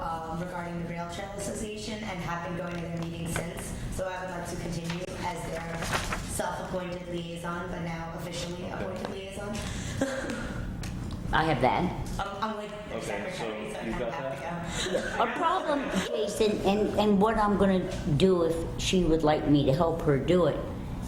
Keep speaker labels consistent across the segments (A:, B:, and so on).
A: um, Lawn Trail Association and have been going to their meetings since, so I would like to continue as their self-appointed liaison, but now officially appointed liaison.
B: I have that.
A: I'm, I'm with their
C: Okay,
A: secretary,
C: so
A: so I
C: you've
A: kind of
C: got
A: have to go.
B: A problem, Jason, and, and what I'm gonna do if she would like me to help her do it,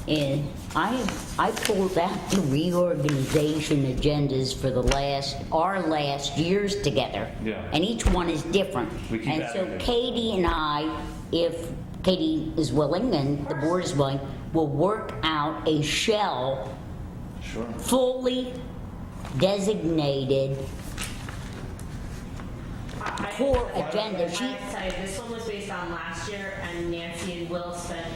B: is I, I pulled out the reorganization agendas for the last, our last years together.
C: Yeah.
B: And each one is different.
C: We keep
B: And
C: adding
B: so
C: it.
B: Katie and I, if Katie is willing and the board is willing, will work out a shell
C: Sure.
B: fully designated
D: I- I-
B: core agenda.
D: I
B: She,
D: have to tell you, this one was based on last year, and Nancy and Will spent,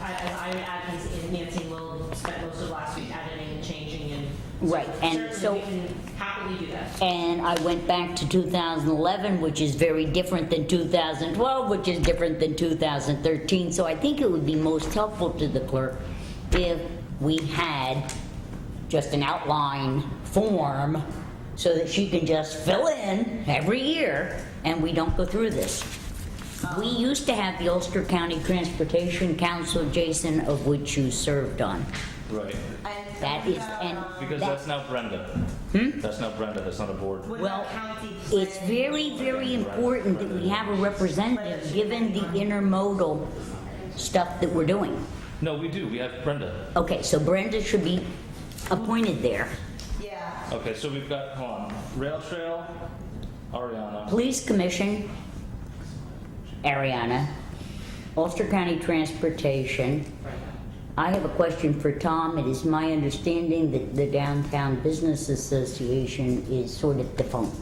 D: I- as I'm admin, Nancy and Will spent most of last week editing and changing and. so
B: Right, and so-
D: Certainly, we can happily do that.
B: And I went back to 2011, which is very different than 2012, which is different than 2013. So I think it would be most helpful to the clerk if we had just an outline form so that she can just fill in every year and we don't go through this. We used to have the Ulster County Transportation Council, Jason, of which you served on.
C: Right.
A: And um,
B: That is, and.
C: Because
B: that-
C: that's not Brenda. That's not Brenda, that's not a board.
A: What
B: Well,
A: about county?
B: It's very, very important that we have a representative, given the intermodal stuff that we're doing.
C: No, we do, we have Brenda.
B: Okay, so Brenda should be appointed there.
A: Yeah.
C: Okay, so we've got, hold on, Rail Trail, Ariana.
B: Police Commission, Ariana, Ulster County Transportation. I have a question for Tom. It is my understanding that the Downtown Business Association is sort of defunct.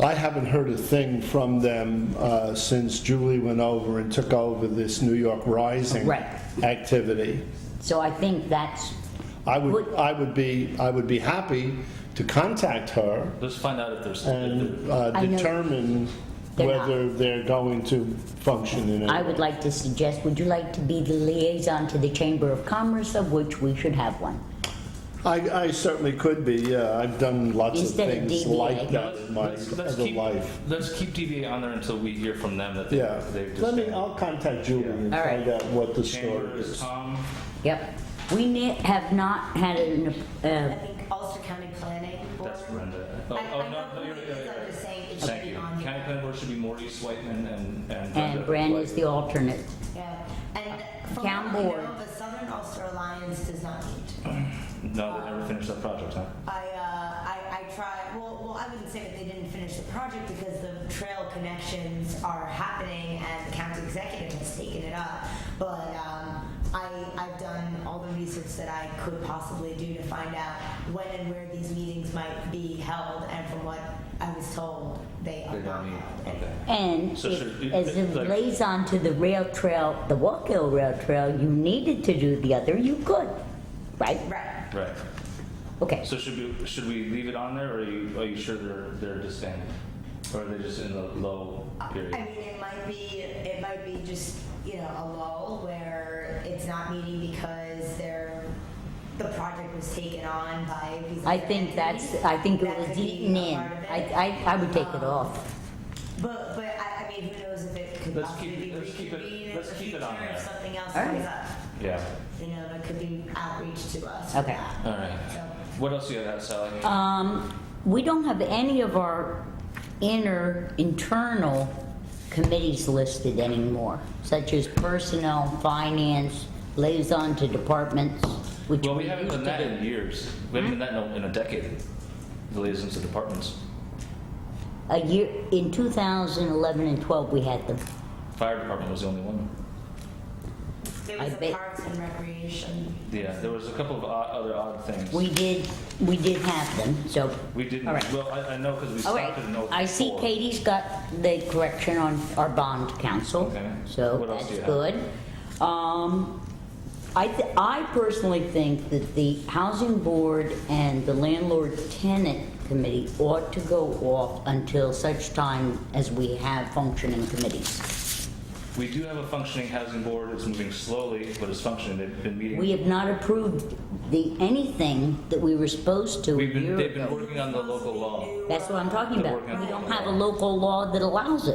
E: I haven't heard a thing from them uh, since Julie went over and took over this New York Rising
B: Right.
E: activity.
B: So I think that's,
E: I would,
B: Would-
E: I would be, I would be happy to contact her
C: Let's find out if there's, if
E: and
C: there-
E: uh,
B: I know-
E: determine
B: They're not.
E: whether they're going to function in it.
B: I would like to suggest, would you like to be the liaison to the Chamber of Commerce, of which we should have one?
E: I, I certainly could be, yeah, I've done lots of
B: Instead of
E: things
B: DBA.
E: like that
C: let's-
E: in my
C: let's- let's
E: other
C: keep-
E: life.
C: Let's keep DBA on there until we hear from them that they-
E: Yeah,
C: they've
E: let me,
C: disbanded.
E: I'll contact Julie and
B: All right.
E: find out what the
C: Chamber
E: story
C: is
E: is.
C: Tom.
B: Yep. We ne- have not had an,
A: I
B: uh,
A: think Ulster County Planning Board.
C: That's Brenda. Oh,
A: I,
C: oh,
A: I know
C: no, no,
A: who
C: you're,
A: it
C: you're,
A: is, I'm
C: you're.
A: just saying it should
C: Thank
A: be
C: you.
A: on
C: County
A: here.
C: Planning Board should be Maurice Whiteman and, and.
B: and Brand is the alternate.
A: Yeah, and from what
B: Uh, Town
A: I know,
B: board.
A: the Southern Ulster Alliance does not meet.
C: No, they never finished that project, huh?
A: I, uh, I, I tried, well, well, I wouldn't say that they didn't finish the project because the trail connections are happening and the county executive has taken it up. But, um, I, I've done all the research that I could possibly do to find out when and where these meetings might be held and from what I was told, they are
C: They
A: not
C: don't need,
A: held.
C: okay.
B: And
C: So should
B: if-
C: it-
B: as a
C: like-
B: liaison to the rail trail, the Walk Hill Rail Trail, you needed to do the other, you could, right?
A: Right,
C: Right.
B: Okay.
C: So should we, should we leave it on there, or are you, are you sure they're, they're disbanded? Or are they just in the low
A: I mean,
C: period?
A: it might be, it might be just, you know, a lull where it's not meeting because they're, the project was taken on by these.
B: I
A: other
B: think that's,
A: entities.
B: I think it
A: That
B: was
A: could be
B: eaten
A: a
B: in.
A: part of it. Um,
B: I, I, I would take it off.
A: But, but I, I mean, who knows if it could
C: Let's
A: possibly
C: keep-
A: be
C: let's keep it-
A: reconvened in the
C: let's keep it
A: future
C: on there.
A: if something else
B: All right.
A: comes up.
C: Yeah,
A: You know, there could be outreach to us. for
B: Okay.
A: that.
C: all right. What else you got, Sally?
B: Um, we don't have any of our inner, internal committees listed anymore, such as personnel, finance, liaison to departments, which
C: Well,
B: we
C: we
B: used
C: haven't done that
B: to
C: in
B: do.
C: years. We haven't done that in a- in a decade, the liaisons to departments.
B: A year, in 2011 and 12, we had them.
C: Fire department was the only one.
A: There
B: I
A: was a
B: bet-
A: parks and recreation.
C: Yeah, there was a couple of odd- other odd things.
B: We did, we did have them, so.
C: We didn't,
B: All right.
C: well, I, I know because we
B: All right,
C: stopped it in oh four.
B: I see Katie's got the correction on our bond council,
C: Okay.
B: so
C: What else do
B: that's
C: you have?
B: good. Um, I, th- I personally think that the housing board and the landlord tenant committee ought to go off until such time as we have functioning committees.
C: We do have a functioning housing board. It's moving slowly, but it's functioning. They've been meeting.
B: We have not approved the, anything that we were supposed to a
C: We've been,
B: year
C: they've been
B: ago.
C: working on the local law.
B: That's what I'm talking
C: They're
B: about.
C: working on
B: We
C: the
B: don't
C: local
B: have a
C: law.
B: local law that allows it.